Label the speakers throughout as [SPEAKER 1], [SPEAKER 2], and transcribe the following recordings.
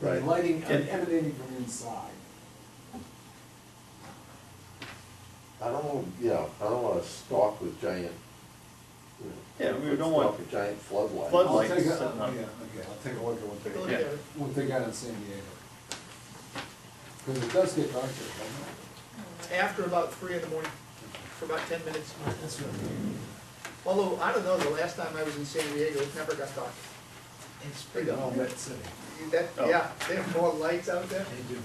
[SPEAKER 1] Right.
[SPEAKER 2] Lighting
[SPEAKER 1] And-
[SPEAKER 2] emanating from inside.
[SPEAKER 3] I don't, want- you know, I don't wanna stalk with giant, you know.
[SPEAKER 1] Yeah, we don't
[SPEAKER 3] stalk
[SPEAKER 1] want-
[SPEAKER 3] with Giant floodlights.
[SPEAKER 2] I'll
[SPEAKER 1] Floodlights.
[SPEAKER 2] take a- oh,
[SPEAKER 1] Lights, uh,
[SPEAKER 2] Yeah, okay, I'll take a look at what
[SPEAKER 4] Take a look
[SPEAKER 2] they,
[SPEAKER 4] at
[SPEAKER 1] Yeah.
[SPEAKER 4] it.
[SPEAKER 2] what they got in San Diego. Because it does get dark there, doesn't
[SPEAKER 4] After about three in the morning, for about ten minutes.
[SPEAKER 2] it? That's right.
[SPEAKER 4] Although, I don't know, the last time I was in San Diego, it never got dark.
[SPEAKER 2] It's pretty well lit city.
[SPEAKER 4] That,
[SPEAKER 1] Oh.
[SPEAKER 4] yeah, they have more lights out there.
[SPEAKER 2] They do.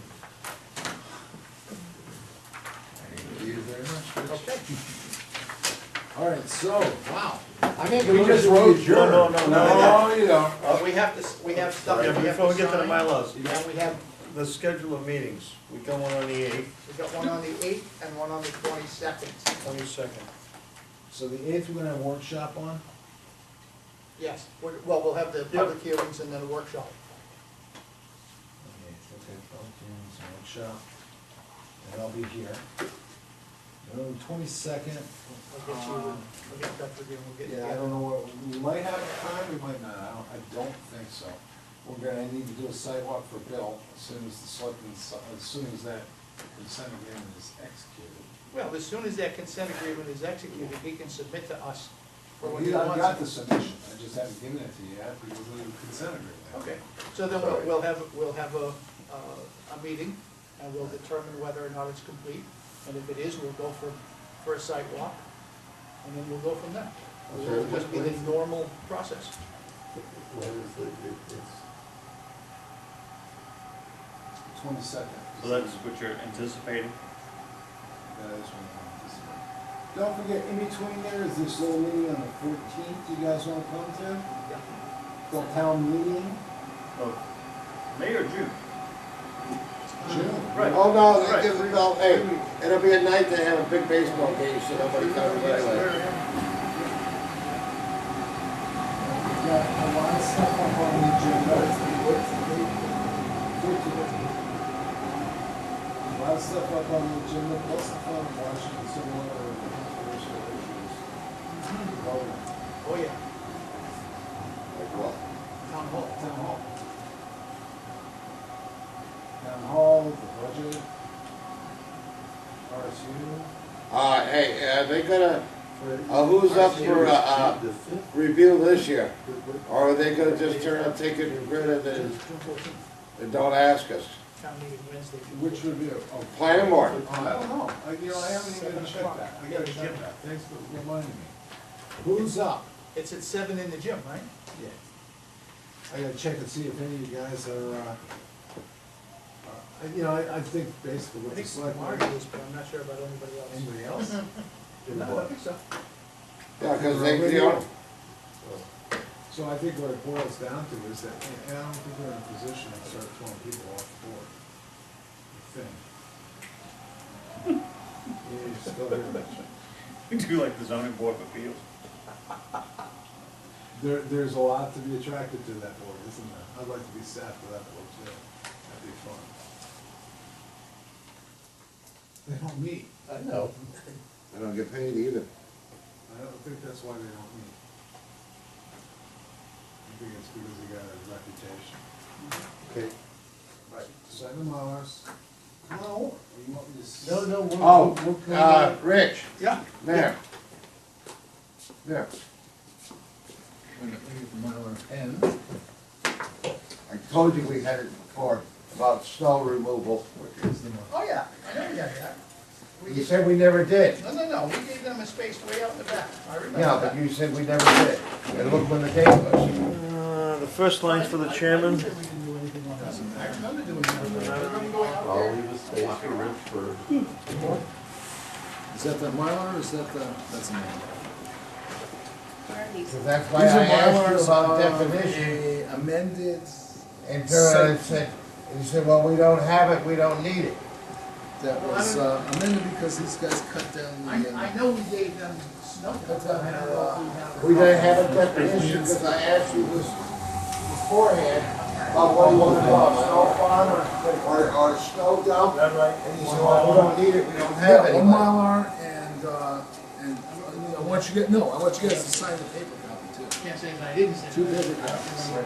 [SPEAKER 2] Thank you very much. Rich.
[SPEAKER 4] Okay.
[SPEAKER 2] All right, so, wow. I mean,
[SPEAKER 1] We just wrote- No, no, no, no.
[SPEAKER 2] No, you don't.
[SPEAKER 4] Uh, we have this, we have stuff
[SPEAKER 5] Yeah,
[SPEAKER 4] that we have
[SPEAKER 5] before
[SPEAKER 4] to
[SPEAKER 5] we get to the
[SPEAKER 4] sign.
[SPEAKER 5] bylaws, you got
[SPEAKER 4] And we have,
[SPEAKER 5] the schedule of meetings, we got one on the eighth,
[SPEAKER 4] we've got one on the eighth and one on the twenty-second.
[SPEAKER 5] twenty-second.
[SPEAKER 2] So the eighth, we're gonna have a workshop on?
[SPEAKER 4] Yes, we're- well, we'll have the public hearings and then a workshop.
[SPEAKER 2] Okay, okay, public hearings, and workshop, and I'll be here. And on the twenty-second, Um,
[SPEAKER 4] I'll get you, I'll get Dr. Green, we'll get.
[SPEAKER 2] Ah. yeah, I don't know what, we might have time, we might not, I don't, I don't think so. We're gonna need to do a sidewalk for Bill as soon as the selectmen, as soon as that consent agreement is executed.
[SPEAKER 4] Well, as soon as that consent agreement is executed, he can submit to us for what
[SPEAKER 2] We-
[SPEAKER 4] he
[SPEAKER 2] I've got
[SPEAKER 4] wants.
[SPEAKER 2] the submission, I just haven't given it to you yet because of the consent agreement.
[SPEAKER 4] Okay, so then we'll, we'll have, we'll have a, uh, a meeting, and we'll determine whether or not it's complete, and if it is, we'll go for, for a site walk, and then we'll go from there. It'll just be the normal process.
[SPEAKER 3] When is the, it- it's,
[SPEAKER 2] Twenty-second.
[SPEAKER 5] So that's what you're anticipating?
[SPEAKER 2] That is one of them. This one. Don't forget, in between there is this little meeting on the fourteenth, you guys wanna come to?
[SPEAKER 4] Yeah.
[SPEAKER 2] The town meeting?
[SPEAKER 5] Oh, May or June?
[SPEAKER 2] June.
[SPEAKER 5] Right.
[SPEAKER 3] oh no,
[SPEAKER 5] Right.
[SPEAKER 3] that gives me all, hey, it'll be a night to have a big baseball game, so nobody comes anyway.
[SPEAKER 2] We've got a lot of stuff up on the agenda. Fourteenth. A lot of stuff up on the agenda, plus the fun of watching some other controversial issues. Oh,
[SPEAKER 4] Oh, yeah,
[SPEAKER 3] Like what?
[SPEAKER 4] town hall.
[SPEAKER 2] Town hall. Town hall, the budget, RSU.
[SPEAKER 3] Uh, hey, uh, they gonna
[SPEAKER 2] for-
[SPEAKER 3] Uh, who's up for, uh, uh,
[SPEAKER 1] The fifth,
[SPEAKER 3] review this year, or are they gonna just turn and take it and grid it and,
[SPEAKER 4] June fourteenth,
[SPEAKER 3] and don't ask us?
[SPEAKER 4] town meeting Wednesday. June
[SPEAKER 2] Which
[SPEAKER 4] 14th.
[SPEAKER 2] review? Oh,
[SPEAKER 3] Planning
[SPEAKER 2] I
[SPEAKER 3] board,
[SPEAKER 2] don't know, I, you know, I haven't even
[SPEAKER 4] Seven
[SPEAKER 2] checked
[SPEAKER 4] o'clock.
[SPEAKER 2] that, I gotta
[SPEAKER 4] Yeah.
[SPEAKER 2] check that, thanks for reminding me. Who's up?
[SPEAKER 4] It's at seven in the gym, right?
[SPEAKER 2] Yeah. I gotta check and see if any of you guys are, uh, uh, you know, I, I think basically
[SPEAKER 4] I
[SPEAKER 2] what the
[SPEAKER 4] think
[SPEAKER 2] select.
[SPEAKER 4] Marty is, but I'm not sure about anybody else.
[SPEAKER 2] Anybody else? Did
[SPEAKER 4] No, I
[SPEAKER 2] what?
[SPEAKER 4] think so.
[SPEAKER 3] yeah, cause they, you know,
[SPEAKER 2] So I think what it boils down to is that, and I don't think we're in a position to start throwing people off the board. I think. Yeah, you're still here.
[SPEAKER 5] We do like the zoning board of appeals.
[SPEAKER 2] There, there's a lot to be attracted to that board, isn't there? I'd like to be staff for that board too. That'd be fun. They don't meet.
[SPEAKER 3] I know. I don't get paid either.
[SPEAKER 2] I don't think that's why they don't meet. I think it's because they got a reputation.
[SPEAKER 3] Okay.
[SPEAKER 2] Right. Seven Mars. Come on over. You want me to?
[SPEAKER 1] no, no, we're.
[SPEAKER 3] Oh,
[SPEAKER 1] we're- we're-
[SPEAKER 3] uh, Rich,
[SPEAKER 4] Yeah.
[SPEAKER 3] there. There. I told you we had it before, about snow removal.
[SPEAKER 4] Oh, yeah, I know you got that. We
[SPEAKER 3] You
[SPEAKER 4] gave-
[SPEAKER 3] said we never did.
[SPEAKER 4] No, no, no, we gave them a space way out in the back, I remember
[SPEAKER 3] Yeah,
[SPEAKER 4] that.
[SPEAKER 3] but you said we never did. And look when the date was.
[SPEAKER 5] Uh, the first line's for the
[SPEAKER 4] I- I- I
[SPEAKER 5] chairman.
[SPEAKER 4] said we didn't do anything on that. I remember doing that. I remember going out
[SPEAKER 6] I'll
[SPEAKER 4] there.
[SPEAKER 6] leave a space for Rich for
[SPEAKER 2] Is that the Mylar or is that the? That's the Mylar.
[SPEAKER 3] So that's why I asked you about definition.
[SPEAKER 2] Amended.
[SPEAKER 3] And Gerard said, he said, well, we don't have it, we don't need it.
[SPEAKER 2] That uh,
[SPEAKER 4] Well, I was, don't-
[SPEAKER 2] amended because these guys cut down uh,
[SPEAKER 4] I, I know we gave them snow, but I don't know if we have.
[SPEAKER 3] We didn't have a definition because I asked you this beforehand about what you wanted about snow farm or, or, or snow dump. And he said, well, we don't need it, we don't have
[SPEAKER 2] Yeah,
[SPEAKER 3] it.
[SPEAKER 2] one Mylar and, uh, and I want you, to- no, I want you guys to sign the paper copy too.
[SPEAKER 4] Can't say that I didn't say that.
[SPEAKER 2] paper copies.